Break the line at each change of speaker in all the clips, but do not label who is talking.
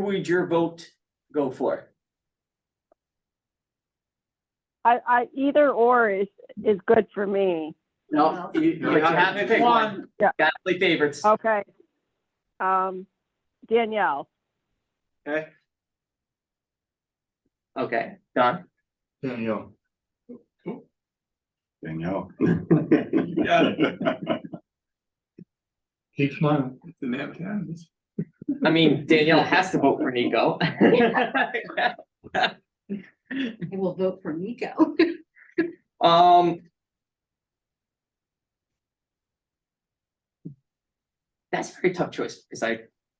would your vote go for?
I, I, either or is, is good for me.
No, you, you
No, you
have
have
to
to
pick
pick
one.
Yeah.
Gotta play favorites.
Okay. Um, Danielle,
Okay,
Okay, Don,
Danielle.
Danielle.
got
Keep smiling.
didn't have time.
I mean, Danielle has to vote for Nico.
I will vote for Nico.
Um. That's a very tough choice, because I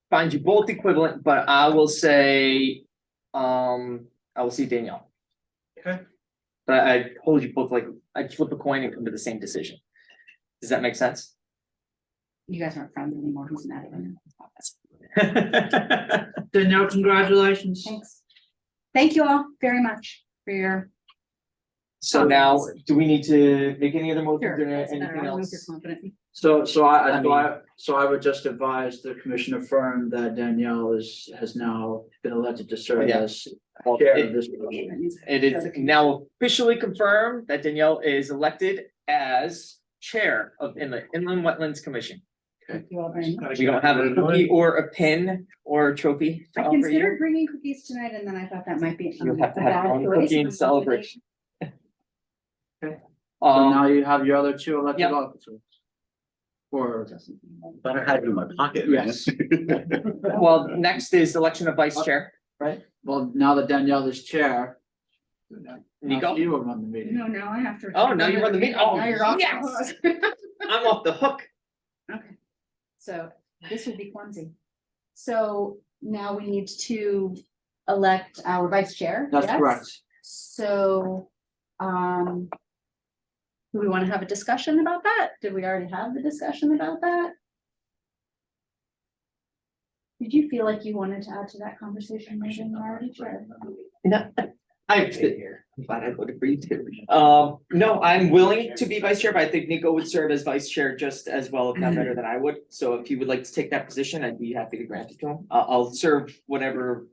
find you both equivalent, but I will say, um, I will see Danielle.
Okay.
But I hold you both like, I flip a coin and come to the same decision. Does that make sense?
You guys aren't friends anymore. Who's mad at me?
Danielle, congratulations.
Thanks. Thank you all very much for your.
So now, do we need to make any other motions or
That's better.
anything
I don't know if you're
else?
confident.
So, so I,
I
I, so I, so I would just advise the commission affirm that Danielle is, has now been elected to serve
Yeah.
as
Well,
chair
it-
of this.
It is now officially confirmed that Danielle is elected as chair of Inland, Inland Wetlands Commission.
Thank you all very much.
We don't have a cookie or a pin or a trophy to
I
offer you.
considered bringing cookies tonight and then I thought that might be.
You'll have to
a
have
bad
your own
choice.
cookie and celebration.
So
Um,
now you have your other two elected
Yep.
officers. Or,
Thought I had it in my pocket. man.
Yes.
well, next is election of vice chair.
well, now that Danielle is chair.
Nico,
You will run the meeting.
No, no, I have to.
Oh, now you run the meeting. Oh,
Now you're off the
yes.
hook.
I'm off the hook.
Okay, so this will be clumsy. So now we need to elect our vice chair.
That's
yes?
correct.
So, um. Do we want to have a discussion about that? Did we already have the discussion about that? Did you feel like you wanted to add to that conversation, Megan, You're already chair?
No, I sit here. I'm glad I voted for you too. Um, no, I'm willing to be vice chair, but I think Nico would serve as vice chair just as well, if not better than I would. So if you would like to take that position, I'd be happy to grant it to him. I'll, I'll serve whatever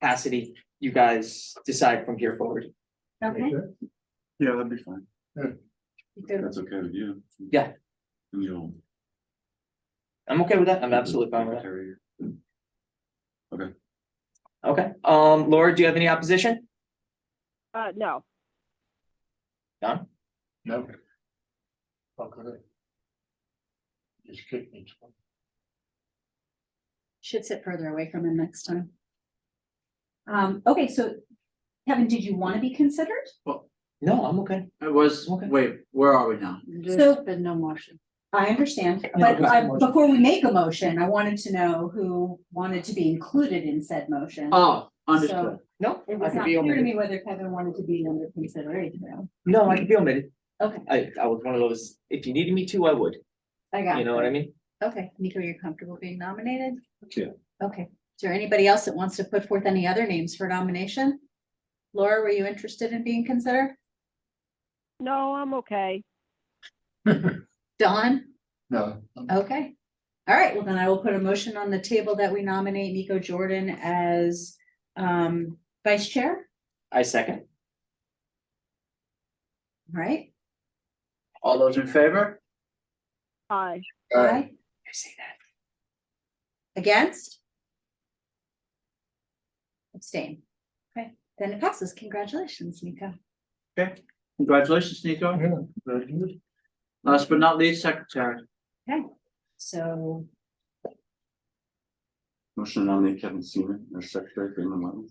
capacity you guys decide from here forward.
Okay,
Yeah, that'd be fine.
you could-
That's okay with you.
Yeah.
And you'll.
I'm okay with that. I'm absolutely fine with
Carry your-
that. Okay, um, Laura, do you have any opposition?
uh, no.
None?
No. Fuck with it. Just kicked me. twice.
should sit further away from him next time. Um, okay, so Kevin, did you want to be considered?
No, I'm okay.
It was,
Okay.
wait, where are we now?
So-
There's been no motion.
I understand,
Yeah,
but
just a
I,
motion.
before we make a motion, I wanted to know who wanted to be included in said motion.
Oh, understood.
No,
It
I
was
can
not
be
clear to
omitted.
me whether Kevin wanted to be under consideration, though.
No, I can be omitted.
Okay,
I, I was one of those, if you needed me to, I would.
I got
You know what I mean?
Okay, Nico, you're comfortable being nominated?
Yeah.
Okay, is there anybody else that wants to put forth any other names for nomination? Laura, were you interested in being considered?
No, I'm okay.
Dawn?
No.
Okay. All right, well then I will put a motion on the table that we nominate Nico Jordan as um vice chair,
I second.
All right?
All those in favor?
Aye.
Aye.
I say that.
Against? Abstain. Okay, then it passes. Congratulations, Nico.
Congratulations, Nico.
Yeah, very good.
Last but not least, secretary.
So
Motion to nominate Kevin Seaman, our secretary for inland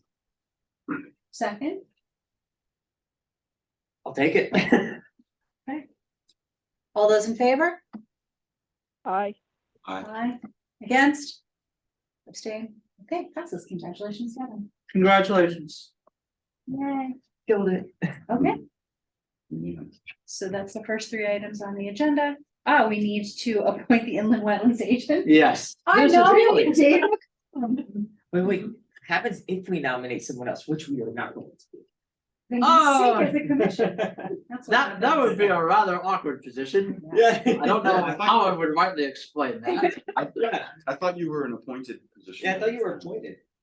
wetlands.
second,
I'll take it.
all those in favor?
Aye.
Aye.
Aye. Against? Abstain? Okay, passes. Congratulations, Kevin.
Congratulations.
Yay.
Killed it.
Okay,
Yeah.
so that's the first three items on the agenda. Ah, we need to appoint the inland wetlands agent.
Yes.
I
This is
know,
really-
Dave.
Wait, wait, happens if we nominate someone else, which we are not going to do.
Then
Oh.
you sink as a commission. That's what
That, that would be a rather awkward position.
Yeah.
I don't know how I would rightly explain that.
I thought you were an appointed position.
Yeah, I thought you were appointed.